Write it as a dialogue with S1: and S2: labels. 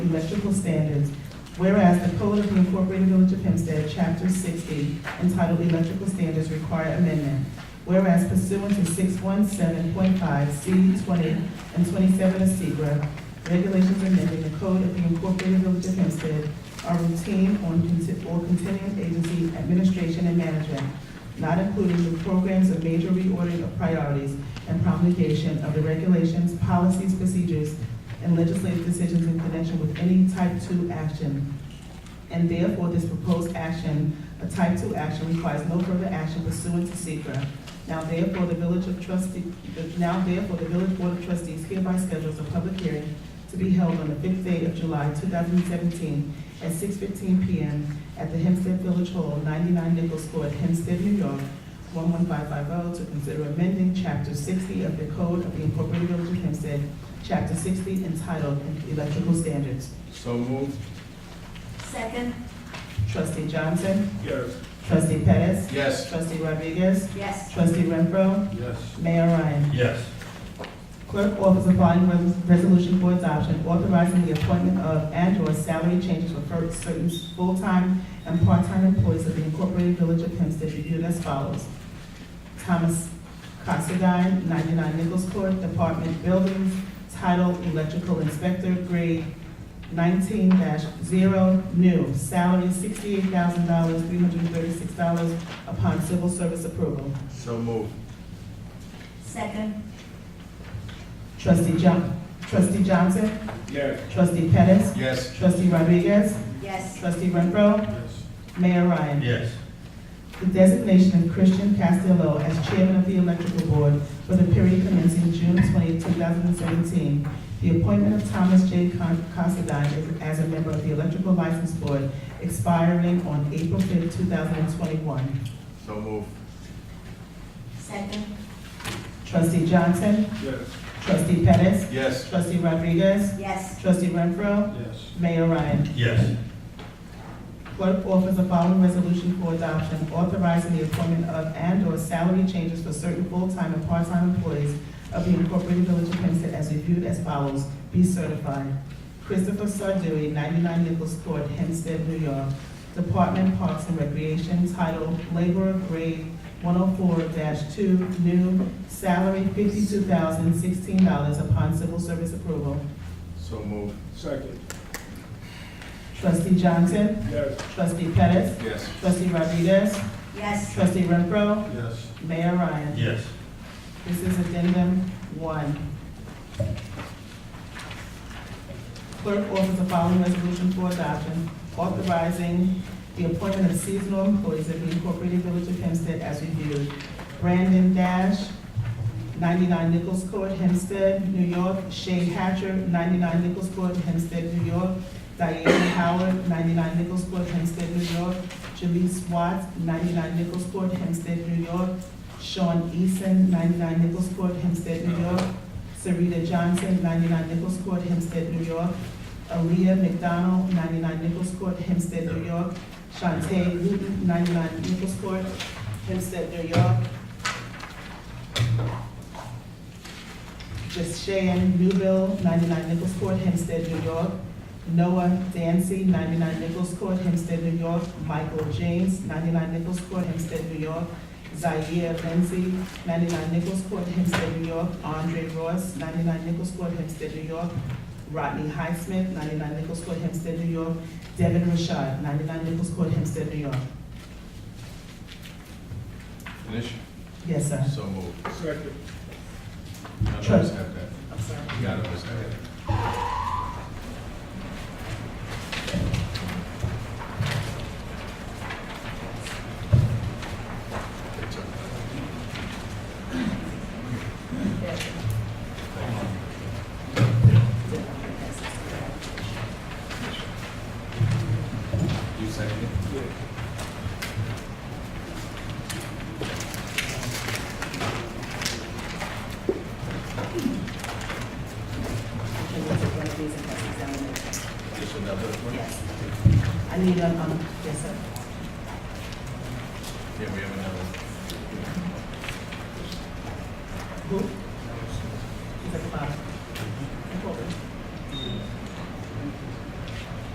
S1: electrical standards, whereas the Code of the Incorporated Village of Hempstead, Chapter 60, entitled Electrical Standards Require Amendment, whereas pursuant to 617.5 C 20 and 27 of SECRE, regulations amending the Code of the Incorporated Village of Hempstead are routine on conti- or continuing agency administration and management, not including the programs of major reordering of priorities and promulgation of the regulations, policies, procedures, and legislative decisions in connection with any type two action. And therefore, this proposed action, a type two action, requires no further action pursuant to SECRE. Now therefore, the Village of Trustee, the- now therefore, the Village Board of Trustees hereby schedules a public hearing to be held on the fifth day of July, two thousand and seventeen, at six fifteen PM at the Hempstead Village Hall, ninety-nine Nichols Court, Hempstead, New York, one one five five oh, to consider amending chapter sixty of the Code of the Incorporated Village of Hempstead, chapter sixty entitled Electrical Standards.
S2: So moved.
S3: Second,
S1: Trustee Johnson,
S2: Yes.
S1: trustee Pettis,
S2: Yes.
S1: trustee Rodriguez,
S3: yes.
S1: trustee Renfro,
S2: Yes.
S1: Mayor Ryan.
S2: Yes.
S1: Clerk offers a following res- resolution for adoption, authorizing the appointment of and/or salary changes for fir- certain full-time and part-time employees of the Incorporated Village of Hempstead, reviewed as follows. Thomas Considine, 99 Nichols Court, Department Buildings, title Electrical Inspector, grade 19-0, new, salary $68,000, $336 upon civil service approval.
S2: So moved.
S3: Second,
S1: Trustee John, trustee Johnson,
S2: Yes.
S1: trustee Pettis,
S2: Yes.
S1: Trustee Rodriguez,
S3: yes.
S1: Trustee Renfro,
S2: Yes.
S1: Mayor Ryan.
S2: Yes.
S1: The designation of Christian Castillo as Chairman of the Electrical Board for the period commencing June 20, 2017. The appointment of Thomas J. Con- Considine as- as a member of the Electrical License Board expiring on April 5, 2021.
S2: So moved.
S3: Second,
S1: Trustee Johnson,
S2: Yes.
S1: Trustee Pettis,
S2: Yes.
S1: Trustee Rodriguez,
S3: yes.
S1: Trustee Renfro,
S2: Yes.
S1: Mayor Ryan.
S2: Yes.
S1: Clerk offers the following resolution for adoption, authorizing the appointment of and/or salary changes for certain full-time and part-time employees of the Incorporated Village of Hempstead as reviewed as follows. Be certified. Christopher Sardui, 99 Nichols Court, Hempstead, New York. Department Parks and Recreation, title Laborer, grade 104-2, new, salary $52,016 upon civil service approval.
S2: So moved. Second.
S1: Trustee Johnson,
S2: Yes.
S1: trustee Pettis,
S2: Yes.
S1: trustee Rodriguez,
S3: Yes,
S1: Trustee Renfro,
S2: Yes.
S1: Mayor Ryan.
S2: Yes.
S1: This is addendum one. Clerk offers the following resolution for adoption, authorizing the appointment of seasonal employees of the Incorporated Village of Hempstead as reviewed. Brandon Dash, 99 Nichols Court, Hempstead, New York. Shay Hatcher, 99 Nichols Court, Hempstead, New York. Diana Howard, 99 Nichols Court, Hempstead, New York. Jaleese Watts, 99 Nichols Court, Hempstead, New York. Sean Eason, 99 Nichols Court, Hempstead, New York. Sarita Johnson, 99 Nichols Court, Hempstead, New York. Aaliyah McDonald, 99 Nichols Court, Hempstead, New York. Shantae Newton, 99 Nichols Court, Hempstead, New York. Just Cheyenne Newville, 99 Nichols Court, Hempstead, New York. Noah Dancy, 99 Nichols Court, Hempstead, New York. Michael James, 99 Nichols Court, Hempstead, New York. Zaire Lindsay, 99 Nichols Court, Hempstead, New York. Andre Ross, 99 Nichols Court, Hempstead, New York. Rodney Highsmith, 99 Nichols Court, Hempstead, New York. Devin Rashad, 99 Nichols Court, Hempstead, New York.
S2: Finish.
S1: Yes, sir.
S2: So moved. Second.
S1: Sure.
S2: always have that.
S1: I'm sorry.
S2: You gotta always have that. Good job. You second it? Just another one?
S1: Yes. I need, um, um, yes, sir.
S2: Yeah, we have another one.
S1: Who? He's at the bottom.